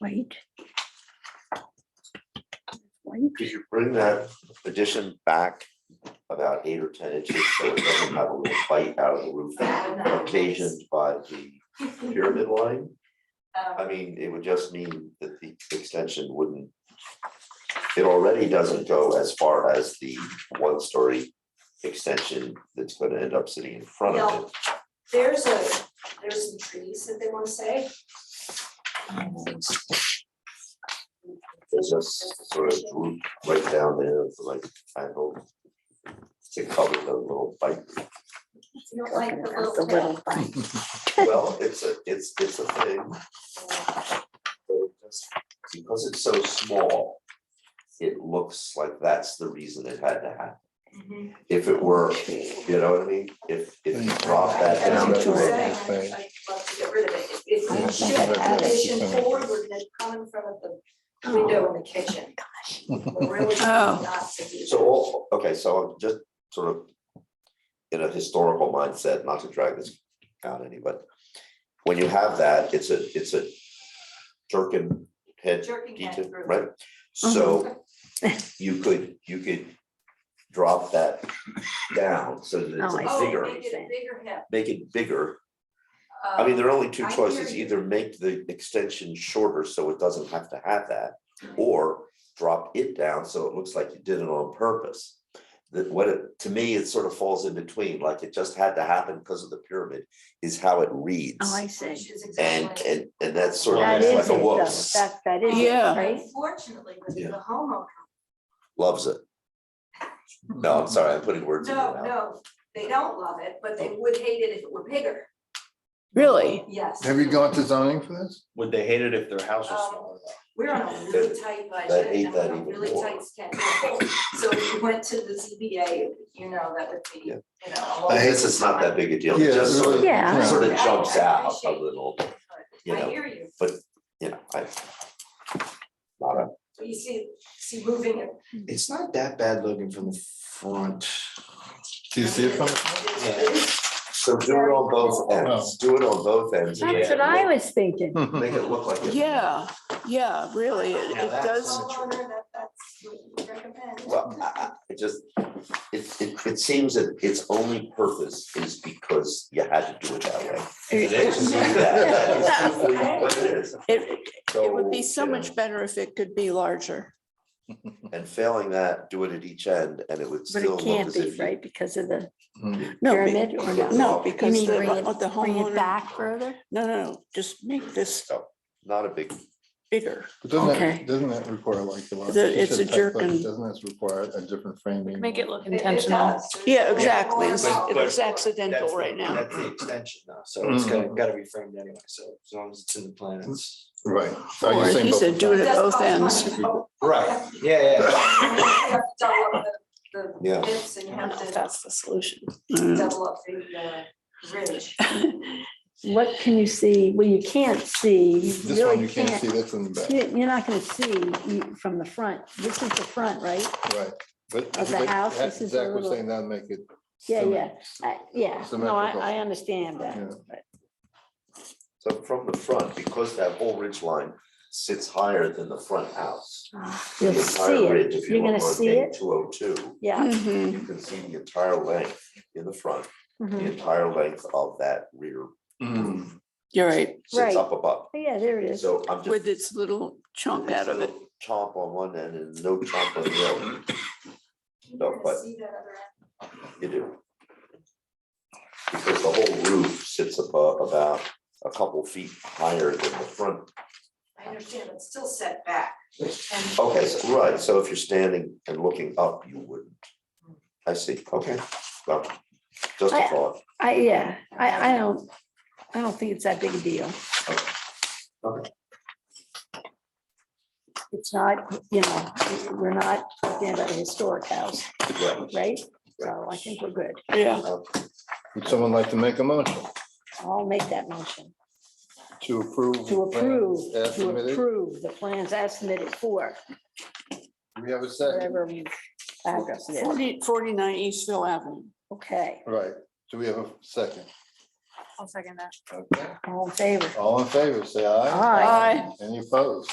Wait. Wait, Could you bring that addition back about eight or ten inches so it doesn't have a little bite out of the roof occasioned by the pyramid line? I mean, it would just mean that the extension wouldn't. It already doesn't go as far as the one-story extension that's gonna end up sitting in front of it. There's a, there's some trees that they wanna say. It's just sort of droop right down there, it's like, I hope. To cover the little bite. You don't like talking the about the little tail. little bite. Well, it's a, it's, it's a thing. but it just- Because it's so small, it looks like that's the reason it had to happen. Mhm. If it were, you know what I mean? If, if you drop that That's down. what to you're a- saying, to I'd I'd love to get rid of it. If Yeah, we something like should that. addition forward, we're gonna come in front of the window in the kitchen. We're really Oh. not to a- do So, all- okay, so I'm just sort of in a historical mindset, not to drag this out any, but when you have that, it's a, it's a jerkin head jerking detail, that through. right? So you could, you could drop that down so that it's Oh, I a Oh, see. bigger, make it a bigger Um, hip. make it bigger. I mean, there are only two Oh, I hear choices, you. either make the extension shorter so it doesn't have to have that, or drop it down so it looks like you did it on purpose. That what it, to me, it sort of falls in between, like it just had to happen because of the pyramid, is how it reads. Oh, I Which see. is And, exactly. and, and that's sort That of is it like a though, whoops, that, that is it, Yeah. right? Unfortunately, with Yeah. the homeowner, loves it. No, I'm sorry, I'm putting words in your no, mouth. no, they don't love it, but they would hate it if it were bigger. Really? Yes. Have you gone to zoning for this? Would they hate it if their house Um, was smaller? though? We're on a really tight That budget ain't and we're that on a even really more. tight schedule. So if you went to the ZBA, you know, that would be, Yeah. you know. I guess it's not that big a deal, it Yeah, just sort of, Yeah. sort of I- I jumps out a appreciate- little, you I know. hear you. you know, I. Not a, So You see, see moving it. It's not that bad looking from the front. Do you see it from? It's- so do it on both ends, do it on both ends. and That's what I was thinking. Make it look like it. Yeah, yeah, really, it Yeah, it that's it's does. homeowner, that- That's what we recommend. Well, I, I, it just, it, it, it seems that its only purpose is because you had to do it that way. It It's that- that is simply what it is. It it would be so you know, much better if it could be larger. And failing that, do it at each end and it would But still it look can't as be, if. you- right, because of the, No, be- Pyramid or no? No, You you because mean, the bring it, what the bring it homeowner, back further? no, no, no, just make this So, Not a big, bigger. Doesn't Okay. that, doesn't that require like the? large- The- you it's said a type jerk plate, and- Doesn't this require a different framing? Make it look It- it intentional. does. Yeah, There's exactly. more It's involved. it's accidental That's the- right now. That's the extension though, so it's gotta, Mhm. gotta be framed anyway, so as long as it's in the plan, it's. Right. Are Or you saying he both said, do it It at does both cost ends. money, though. Right, yeah, yeah. You have to double up The Yeah. the bits and you I don't know have if to that's the solution. Mm. double up the uh, ridge. What can you see? Well, you can't see, you This one, really you can't see, can't. that's in the back, You- You're not gonna see you- from the front. This is the front, right? right? But. Of the but house, this is a Zach was little- saying that make it. Yeah, symmet- yeah. I- Yeah, no, I, Symmetrical. I understand that. Yeah. but- so from the front, because that whole ridge line sits higher than the front house. You'll the entire see ridge, it. if you You're gonna look on see page it. Mm-hmm. 202. Yeah. Mhm. you can see the entire length in the front, the mhm. entire length of that rear Mm. Mm-hmm. You're right, Right. sits up above. Oh, Yeah, there it is. So I'm just. with its little chunk out of it. Chomp on one end and no chomp on the other, No, You're gonna but- see that other end. you do. Because the whole roof sits above about a couple feet higher than the front. I understand, but still set back. And Okay, so, right, so if you're standing and looking up, you wouldn't. I see, okay, well, just a I- thought. I, yeah, I, I don't, I don't think it's that big a deal. Okay. It's not, you know, we're not talking about a historic house, Yeah. right? So I think we're good. Yeah, Would someone like to make a motion I'll make that motion to approve? the to plans approve, as to submitted? approve the plans as submitted for Do We have a second, whatever address it is. 40 49 Eastville Avenue. Okay, right, do we have a second? I'll second that. Okay. all in favor? All in favor, say aye. Aye. Any opposed?